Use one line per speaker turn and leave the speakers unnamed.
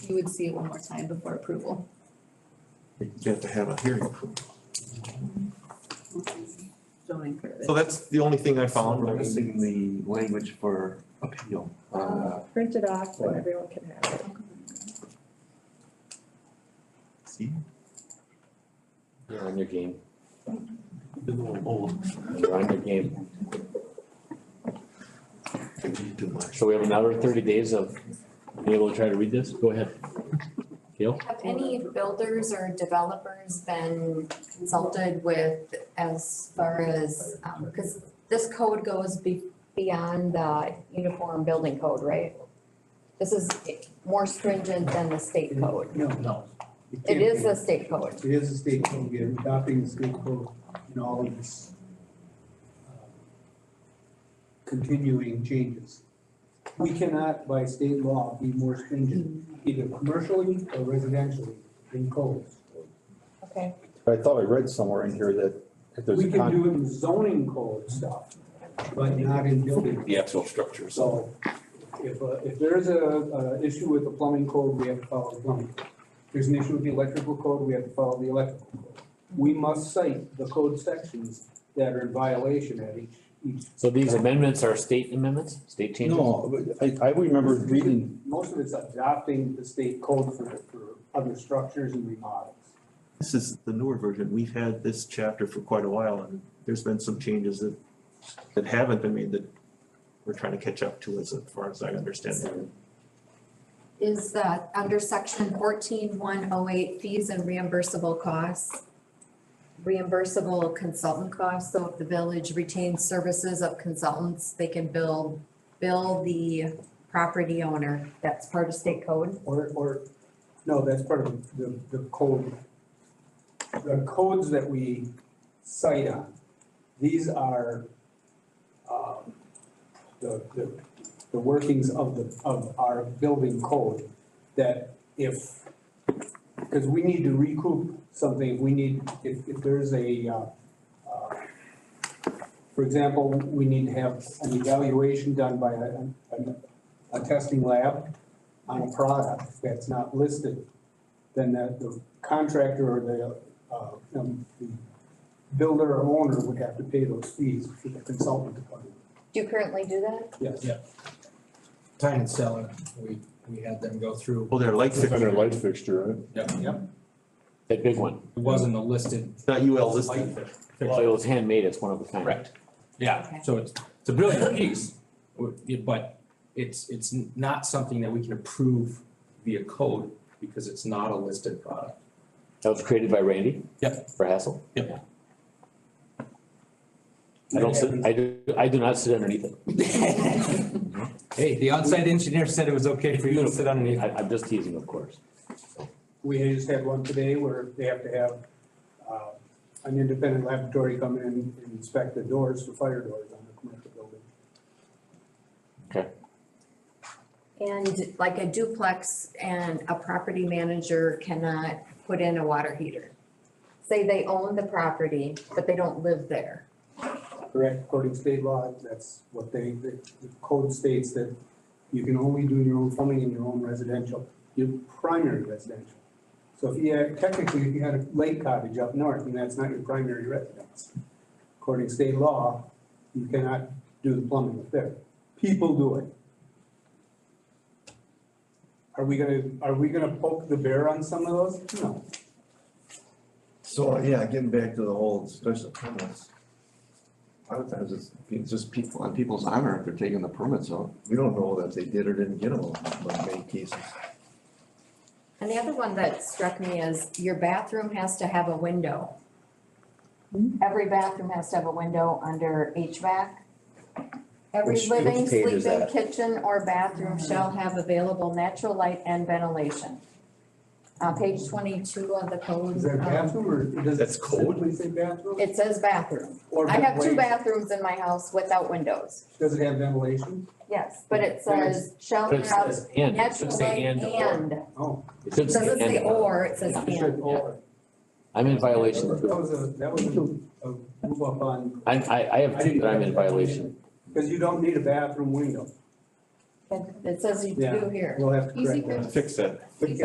you would see it one more time before approval.
You have to have a hearing.
zoning permit.
So that's the only thing I found.
We're
I mean,
missing the language for appeal. Uh,
Print it off so everyone can have it.
See?
You're on your game.
been a little old.
You're on your game.
I did too much.
So we have another thirty days of being able to try to read this. Go ahead. Gail?
Have any builders or developers been consulted with as far as, um, because this code goes be- beyond the uniform building code, right? This is more stringent than the state code.
No, no.
It is the state code.
It is a state code, we are adopting the state code in all of this. um, Continuing changes. We cannot by state law be more stringent, either commercially or residentially in codes.
Okay.
But I thought I read somewhere in here that if there's
We
a
can
con,
do it in zoning code stuff, but not in building.
The actual structures.
So if, uh, if there is a, uh, issue with the plumbing code, we have to follow the plumbing. code. If There's an issue with the electrical code, we have to follow the electrical code. We must cite the code sections that are in violation at each, each,
So these amendments are state amendments, state changes?
no, but I, I remember reading,
most of it's adopting the state code for, for other structures and remodels.
This is the newer version. We've had this chapter for quite a while and there's been some changes that, that haven't been made that we're trying to catch up to as far as I understand it.
Is that under section fourteen one oh eight fees and reimbursable costs? Reimbursable consultant costs, so if the village retains services of consultants, they can bill, bill the property owner, that's part of state code.
Or, or, no, that's part of the, the code. The codes that we cite on, these are, um, the, the, the workings of the, of our building code. That if, because we need to recoup something, if we need, if, if there's a, uh, uh, for example, we need to have an evaluation done by a, a, a testing lab on a product that's not listed, then the- the contractor or the, uh, um, the builder or owner would have to pay those fees for the consultant to come
Do you currently do that?
in. Yes.
Yeah. Tide and Cellar, we, we had them go through.
Well, Oh, they're light
under
fixture,
light fixture, right?
That big one.
It wasn't a listed.
It's not UL listed.
Well, it was handmade. It's one of a kind.
Correct. Yeah, so it's, it's a brilliant piece, but it's, it's not something that we can approve via code because it's not a listed product.
That was created by Randy?
Yep.
For Hassel?
Yep.
Yeah. I don't sit, I do, I do not sit underneath it.
Hey, the on-site engineer said it was okay for you to sit underneath.
I, I'm just teasing, of course.
We just had one today where they have to have, uh, an independent laboratory come in and inspect the doors, the fire doors on the commercial building.
And like a duplex and a property manager cannot put in a water heater. Say they own the property, but they don't live there.
Correct, according to state law, that's what they, the the code states that you can only do your own plumbing in your own residential, your primary residential. So if you had, technically, if you had a lake cottage up north, and that's not your primary residence, according to state law, you cannot do the plumbing up there. People do it. Are we gonna, are we gonna poke the bear on some of those? No.
So, yeah, getting back to the whole special permits. A lot of times it's, it's just people, on people's honor if they're taking the permits out. We don't know that they did or didn't get them in many cases.
And the other one that struck me is your bathroom has to have a window. Every bathroom has to have a window under HVAC. Every
Which-
living,
which page is
sleeping,
that?
kitchen, or bathroom shall have available natural light and ventilation. Uh, page twenty-two of the code.
Is
um,
that bathroom, or does it
That's code?
simply say bathroom?
It says bathroom.
Or
I have two
ventilation?
bathrooms in my house without windows,
Does it have ventilation?
yes, but it says shall
But it
have
says and, it should
natural light
say and or.
and.
Oh.
It should say
Doesn't
and
say or, it says
it should,
and.
or-
I'm in
That
violation.
was a, that was a a move up on,
I, I, I have two that I'm in violation.
because you don't need a bathroom window. It says you
Yeah.
do here.
We'll have to
Easy
correct that.
fix.
fix that.
Easy